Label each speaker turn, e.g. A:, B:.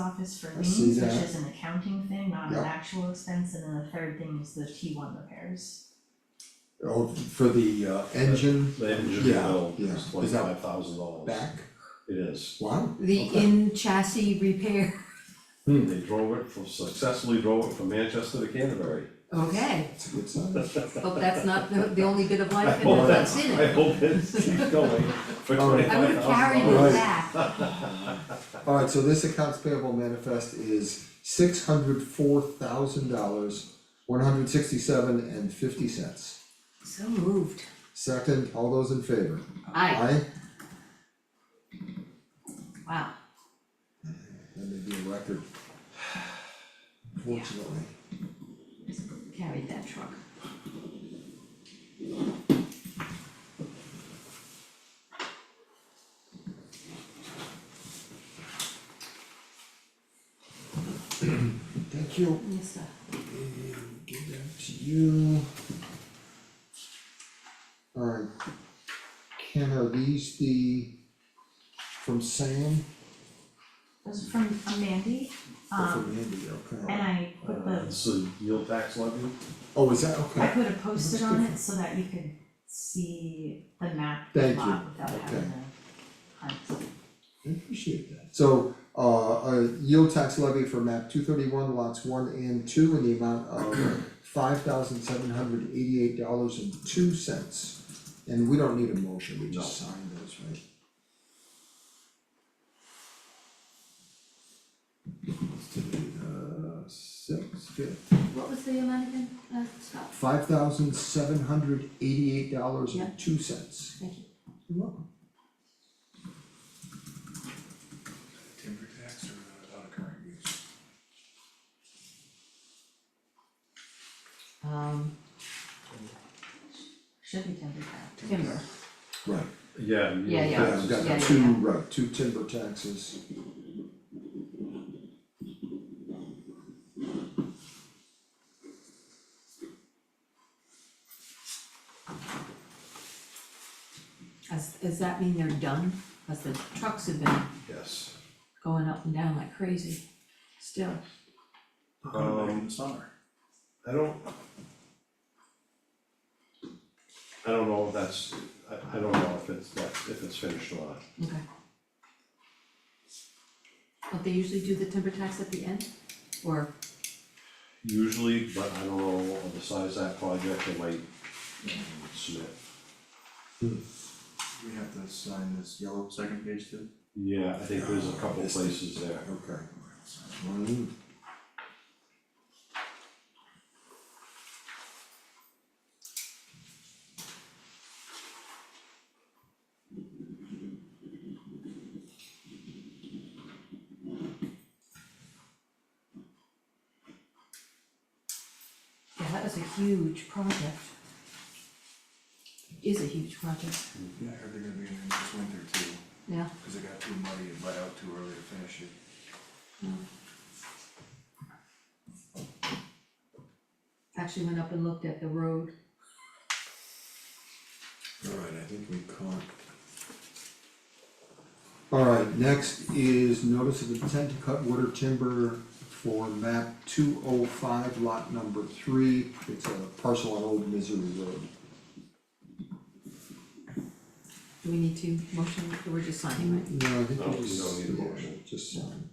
A: office for
B: I see
A: liens, which
B: that.
A: is an accounting thing, not an
B: Yep.
A: actual expense, and then the third thing is the T one repairs.
B: Oh, for the uh engine
C: The engine
B: Yeah,
C: bill
B: yeah.
C: is
B: Is that
C: twenty-five thousand dollars.
B: back,
C: It is.
B: wow,
D: The
B: Okay.
D: in chassis repair,
B: Hmm.
C: They drove it from, successfully drove it from Manchester to Canterbury.
D: okay,
B: that's a good sign.
D: hope that's not the the only bit of
C: I
D: life in
C: hope
D: that
C: that's,
D: that's in
C: I
D: it.
C: hope it keeps going for
B: All right.
C: twenty-five thousand dollars.
D: I would have carried it
B: Alright.
D: back,
B: Alright, so this accounts payable manifest is six hundred four thousand dollars, one hundred sixty-seven and fifty cents.
D: so moved,
B: Second, all those in favor?
D: aye,
B: Aye,
D: wow,
B: that may be a record. Fortunately,
D: carried that truck.
B: thank you,
D: Yes, uh, sir.
B: and give that to you. Alright, Ken, are these the, from Sam
A: Those are from uh, Mandy,
B: or from
A: um,
B: Andy, okay?
A: and I put
C: Uh,
A: the,
C: it's a yield tax levy.
B: Oh, is that,
A: I
B: okay,
A: put a post-it on it so that you could see the map of the
B: Thank you.
A: lot without having to
B: Okay.
A: hunt.
B: I appreciate that. So, uh, a yield tax levy for map two thirty-one lots one and two in the amount of five thousand seven hundred eighty-eight dollars and two cents. And we don't need a motion, we just sign those, right? Let's do the, uh, six, fifth,
D: What was the amount again, uh, stop,
B: five thousand seven hundred eighty-eight dollars and two cents.
D: thank you.
B: You're welcome.
E: timber tax or the non-current use?
D: Um,
A: Should be timber tax.
D: timber,
B: Right,
C: Yeah,
D: Yeah,
C: yield
D: yeah.
B: yeah, I've
C: tax.
D: Yeah,
B: got
D: yeah,
B: two,
D: yeah.
B: right, two timber taxes.
D: does, does that mean they're done? Cause the trucks have been
C: Yes.
D: going up and down like crazy, still,
E: Going back in
C: Um,
E: the summer.
C: I don't. I don't know if that's, I, I don't know if it's, that if it's finished or not.
D: okay. Don't they usually do the timber tax at the end, or?
C: Usually, but I don't know of the size of that project, it might submit.
E: We have to sign this yellow second page too?
C: Yeah, I think there's a couple places there.
B: Okay. Mm.
D: Yeah, that was a huge project. Is a huge project,
E: Yeah, I heard they're gonna be in there this winter too,
D: yeah,
E: cause it got too muddy and let out too early to finish it.
D: actually went up and looked at the road,
B: Alright, I think we caught. Alright, next is notice of intent to cut water timber for map two oh five lot number three. It's a parcel on Old Misery Road.
D: do we need to motion, we're just signing, right?
B: No, I think
C: No,
B: we
C: you
B: just,
C: don't need a
B: yeah,
C: motion.
B: just sign.